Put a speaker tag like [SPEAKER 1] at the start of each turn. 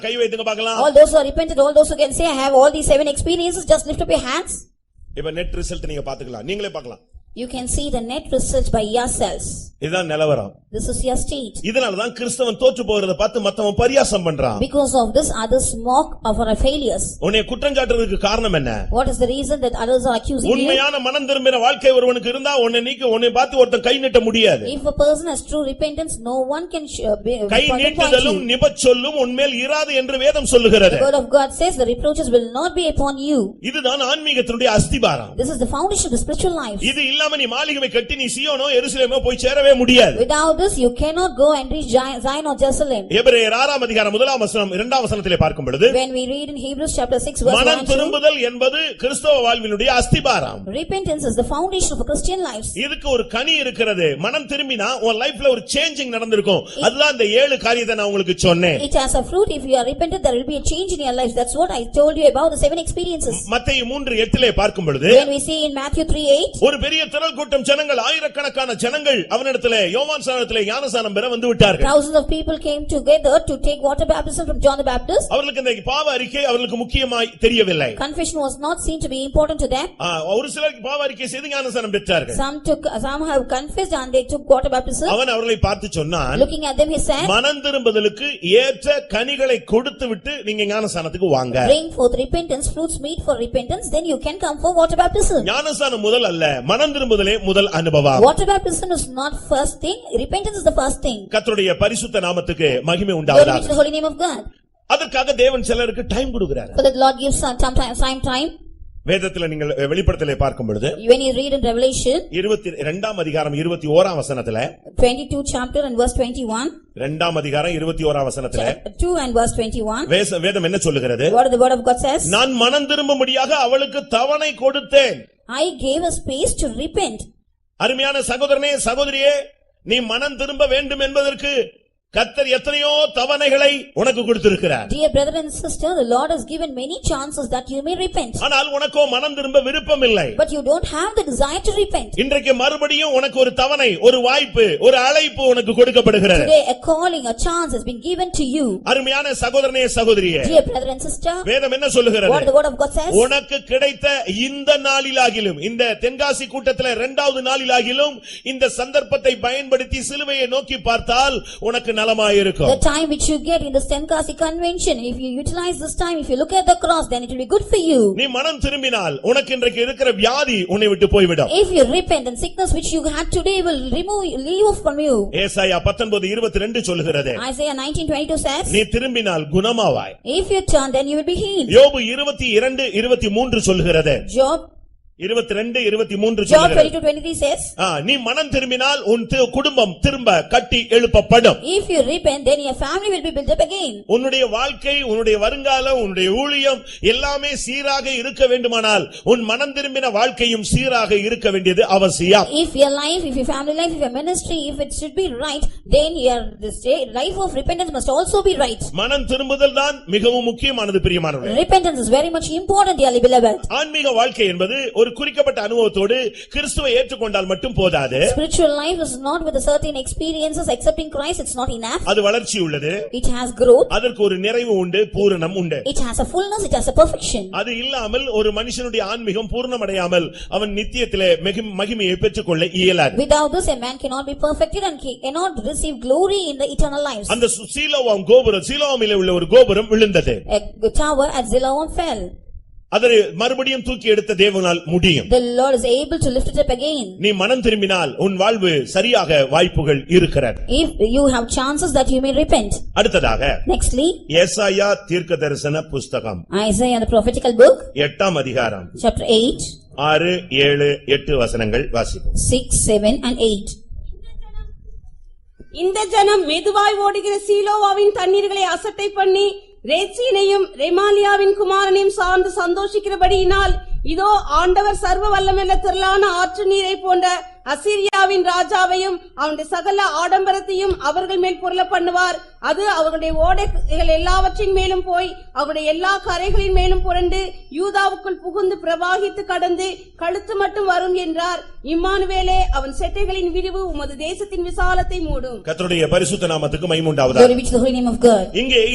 [SPEAKER 1] கை வைத்துங்க பார்க்கலாம்
[SPEAKER 2] All those who are repentant, all those who can say, I have all these seven experiences, just lift up your hands.
[SPEAKER 1] இப்ப net result நீங்க பாத்துக்கலாம் நீங்களே பார்க்கலாம்
[SPEAKER 2] You can see the net result by yourselves.
[SPEAKER 1] இதுதான் நிலவரம்
[SPEAKER 2] This is your state.
[SPEAKER 1] இதனாலதான் கிறிஸ்தவன் தோற்று போகிறத பார்த்து மத்தவன் பரியாசம் பண்றான்
[SPEAKER 2] Because of this, others mock of our failures.
[SPEAKER 1] உன்னை குற்றம் சாட்டுறதுக்கு காரணம் என்ன
[SPEAKER 2] What is the reason that others are accusing you?
[SPEAKER 1] உண்மையான மனம் திரும்பின வாழ்க்கை ஒருவனுக்கு இருந்தா உன்னை நீக்க உன்னை பார்த்து ஒருத்தன் கை நீட்ட முடியாது
[SPEAKER 2] If a person has true repentance, no one can sh- uh, be-
[SPEAKER 1] guy
[SPEAKER 2] point at
[SPEAKER 1] நீட்டுதலும்
[SPEAKER 2] you.
[SPEAKER 1] நிபச்சொல்லும் உன்மேல் இராது என்று வேதம்
[SPEAKER 2] The
[SPEAKER 1] சொல்லுகிறது
[SPEAKER 2] word of God says, the reproaches will not be upon you.
[SPEAKER 1] இதுதான் ஆன்மீகத்தினுடைய அஸ்திபாரம்
[SPEAKER 2] This is the foundation of the spiritual life.
[SPEAKER 1] இது இல்லாம நீ மாளிகை கட்டி நீ சியோனோ எருசலேமோ போய் சேரவே முடியாது
[SPEAKER 2] Without this, you cannot go and reach Gi- Zion or Jerusalem.
[SPEAKER 1] எபிரேயர் ஆறாம் அதிகாரம் முதலாம் வசனம் இரண்டாம் வசனத்திலே பார்க்கும் பொழுது
[SPEAKER 2] When we read in Hebrews chapter six verse one
[SPEAKER 1] மனம்
[SPEAKER 2] and two,
[SPEAKER 1] திரும்புதல் என்பது கிறிஸ்தவ வாழ்வினுடைய அஸ்திபாரம்
[SPEAKER 2] repentance is the foundation of a Christian life.
[SPEAKER 1] இதுக்கு ஒரு கனி இருக்கிறது மனம் திரும்பினா உன் லைஃப்ல ஒரு சேஞ்சிங் நடந்திருக்கும் அதுதான் அந்த ஏழு காரியத்தை நான் உங்களுக்கு சொன்னேன்
[SPEAKER 2] It has a fruit, if you are repentant, there will be a change in your life, that's what I told you about the seven experiences.
[SPEAKER 1] மத்தேயு மூன்று எட்டிலே பார்க்கும் பொழுது
[SPEAKER 2] When we see in Matthew three eight,
[SPEAKER 1] ஒரு பெரிய திரள் கூட்டம் ஜனங்கள் ஆயிரக்கணக்கான ஜனங்கள் அவனிடத்திலே யோவான் சானத்திலே ஞானசானம் பெற வந்து விட்டார்கள்
[SPEAKER 2] thousands of people came together to take water baptism from John the Baptist.
[SPEAKER 1] அவர்களுக்கு இந்த பாவ அறிக்கை அவர்களுக்கு முக்கியமாய் தெரியவில்லை
[SPEAKER 2] Confession was not seen to be important to them.
[SPEAKER 1] ஆ, ஒரு சிலருக்கு பாவ அறிக்கை செய்து ஞானசானம் பெற்றார்கள்
[SPEAKER 2] Some took, some have confessed and they took water baptism.
[SPEAKER 1] அவன் அவர்களை பார்த்து சொன்னான்
[SPEAKER 2] Looking at them, he said,
[SPEAKER 1] மனம் திரும்புதலுக்கு ஏற்ற கனிகளை கொடுத்து விட்டு நீங்க ஞானசானத்துக்கு வாங்க
[SPEAKER 2] bring forth repentance, fruits meet for repentance, then you can come for water baptism.
[SPEAKER 1] ஞானசானம் முதல் அல்ல மனம் திரும்புதலே முதல் அனுபவம்
[SPEAKER 2] Water baptism is not first thing, repentance is the first thing.
[SPEAKER 1] கர்த்தருடைய பரிசுத்த நாமத்துக்கு மகிமை
[SPEAKER 2] Glory be to
[SPEAKER 1] உண்டாவதாக
[SPEAKER 2] the holy name of God.
[SPEAKER 1] அதற்காக தேவன் சிலருக்கு டைம் கொடுக்கிறார்
[SPEAKER 2] For that Lord gives some time, time, time.
[SPEAKER 1] வேதத்துல நீங்கள் வெளிப்படத்திலே பார்க்கும் பொழுது
[SPEAKER 2] When you read in Revelation
[SPEAKER 1] இருபத்தி இரண்டாம் அதிகாரம் இருபத்தி ஓராம் வசனத்துல
[SPEAKER 2] twenty-two chapter and verse twenty-one,
[SPEAKER 1] இரண்டாம் அதிகாரம் இருபத்தி ஓராம் வசனத்துல
[SPEAKER 2] chapter two and verse twenty-one,
[SPEAKER 1] வேச- வேதம் என்ன சொல்லுகிறது
[SPEAKER 2] what the word of God says?
[SPEAKER 1] நான் மனம் திரும்பும்படியாக அவளுக்கு தவணை கொடுத்தேன்
[SPEAKER 2] I gave a space to repent.
[SPEAKER 1] அருமையான சகோதரனே சகோதரியே நீ மனம் திரும்ப வேண்டும் என்பதற்கு கர்த்தர் எத்தனையோ தவணைகளை உனக்கு கொடுத்திருக்கிறார்
[SPEAKER 2] Dear brother and sister, the Lord has given many chances that you may repent,
[SPEAKER 1] ஆனால் உனக்கோ மனம் திரும்ப விருப்பம் இல்லை
[SPEAKER 2] but you don't have the desire to repent.
[SPEAKER 1] இன்றைக்கு மறுபடியும் உனக்கு ஒரு தவணை ஒரு வாய்ப்பு ஒரு அழைப்பு உனக்கு கொடுக்கப்படுகிறது
[SPEAKER 2] Today, a calling, a chance has been given to you.
[SPEAKER 1] அருமையான சகோதரனே சகோதரியே
[SPEAKER 2] Dear brother and sister,
[SPEAKER 1] வேதம் என்ன சொல்லுகிறது
[SPEAKER 2] what the word of God says?
[SPEAKER 1] உனக்கு கிடைத்த இந்த நாளிலாகிலும் இந்த தென்காசி கூட்டத்துல இரண்டாவது நாளிலாகிலும் இந்த சந்தர்ப்பத்தை பயன்படுத்தி சிலுவையை நோக்கி பார்த்தால் உனக்கு
[SPEAKER 2] The
[SPEAKER 1] நலமாயிருக்கும்
[SPEAKER 2] time which you get in the Stenkasi convention, if you utilize this time, if you look at the cross, then it will be good for you.
[SPEAKER 1] நீ மனம் திரும்பினால் உனக்கு இன்றைக்கு இருக்கிற வியாதி உன்னை விட்டு போய்விடும்
[SPEAKER 2] If you repent, then sickness which you had today will remove, leave off from you.
[SPEAKER 1] ஏசாயா பத்தொன்பது இருபத்தி ரெண்டு சொல்லுகிறது
[SPEAKER 2] Isaiah nineteen twenty-two says,
[SPEAKER 1] நீ திரும்பினால் குணமாவாய்
[SPEAKER 2] If you turn, then you will be healed.
[SPEAKER 1] யோபு இருபத்தி இரண்டு இருபத்தி மூன்று சொல்லுகிறது
[SPEAKER 2] Job,
[SPEAKER 1] இருபத்தி ரெண்டு இருபத்தி மூன்று
[SPEAKER 2] Job
[SPEAKER 1] சொல்லுகிறது
[SPEAKER 2] twenty-two twenty-three says,
[SPEAKER 1] ஆ, நீ மனம் திரும்பினால் உன் தி- குடும்பம் திரும்ப கட்டி எழுப்பப்படும்
[SPEAKER 2] If you repent, then your family will be built up again.
[SPEAKER 1] உன்னுடைய வாழ்க்கை உன்னுடைய வருங்காலம் உன்னுடைய ஊழியம் எல்லாமே சீராக இருக்க வேண்டுமானால் உன் மனம் திரும்பின வாழ்க்கையும் சீராக இருக்க வேண்டியது அவசியம்
[SPEAKER 2] If your life, if your family life, if your ministry, if it should be right, then your, this day, life of repentance must also be right.
[SPEAKER 1] மனம் திரும்புதல் தான் மிகவும் முக்கியமானது பிரியமானவர்களே
[SPEAKER 2] Repentance is very much important, dearly beloved.
[SPEAKER 1] ஆன்மீக வாழ்க்கை என்பது ஒரு குறிக்கப்பட்ட அனுபவத்தோடு கிறிஸ்துவை ஏற்றுக்கொண்டால் மட்டும் போதாது
[SPEAKER 2] Spiritual life is not with a certain experiences, accepting Christ, it's not enough.
[SPEAKER 1] அது வளர்ச்சி உள்ளது
[SPEAKER 2] It has growth,
[SPEAKER 1] அதற்கு ஒரு நிறைவு உண்டு பூரணம் உண்டு
[SPEAKER 2] it has a fullness, it has a perfection.
[SPEAKER 1] அது இல்லாமல் ஒரு மனுஷனுடைய ஆன்மீகம் பூர்ணமடையாமல் அவன் நித்தியத்திலே மிகு- மகிமையை பெற்றுக்கொள்ள இயலாது
[SPEAKER 2] Without this, a man cannot be perfected and he cannot receive glory in the eternal lives.
[SPEAKER 1] அந்த சு- சீலோவாம் கோபுரம் சீலோவாமிலே உள்ள ஒரு கோபுரம் விழுந்தது
[SPEAKER 2] A tower at Zilawam fell.
[SPEAKER 1] அதை மறுபடியும் தூக்கி எடுத்த தேவனால் முடியும்
[SPEAKER 2] The Lord is able to lift it up again.
[SPEAKER 1] நீ மனம் திரும்பினால் உன் வாழ்வு சரியாக வாய்ப்புகள் இருக்கிறது
[SPEAKER 2] If you have chances that you may repent.
[SPEAKER 1] அடுத்ததாக
[SPEAKER 2] Nextly,
[SPEAKER 1] ஏசாயா தீர்க்க தரிசன புஸ்தகம்
[SPEAKER 2] Isaiah, the prophetical book,
[SPEAKER 1] எட்டாம் அதிகாரம்
[SPEAKER 2] chapter 8,
[SPEAKER 1] ஆறு ஏழு எட்டு வசனங்கள் வாசிப்போம்
[SPEAKER 2] 6, 7 and 8.
[SPEAKER 3] இந்த ஜனம் மெதுவாய் ஓடுகிற சீலோவாவின் தண்ணீர்களை அசட்டை பண்ணி ரேச்சீனையும் ரெமாலியாவின் குமாரனையும் சார்ந்து சந்தோஷிக்கிறபடியினால் இதோ ஆண்டவர் சர்வ வல்லமெல்ல திரளான ஆற்று நீரை போன்ற அசீரியாவின் ராஜாவையும் அவனுடைய சகல ஆடம்பரத்தையும் அவர்கள் மேல் பொருள பண்ணுவார் அது அவர்களுடைய ஓடைகள் எல்லாவற்றின் மேலும் போய் அவருடைய எல்லா கரைகளின் மேலும் புரண்டு யூதாவுக்குள் புகுந்து பிரவாகித்து கடந்து கழுத்து மட்டும் வரும் என்றார் இம்மானுவேலே அவன் செட்டைகளின் விரிவு உமது தேசத்தின் விசாலத்தை மூடும்
[SPEAKER 1] கர்த்தருடைய பரிசுத்த நாமத்துக்கு மைமுண்டாவதா
[SPEAKER 2] Glory be to the holy name of God.
[SPEAKER 1] இங்கே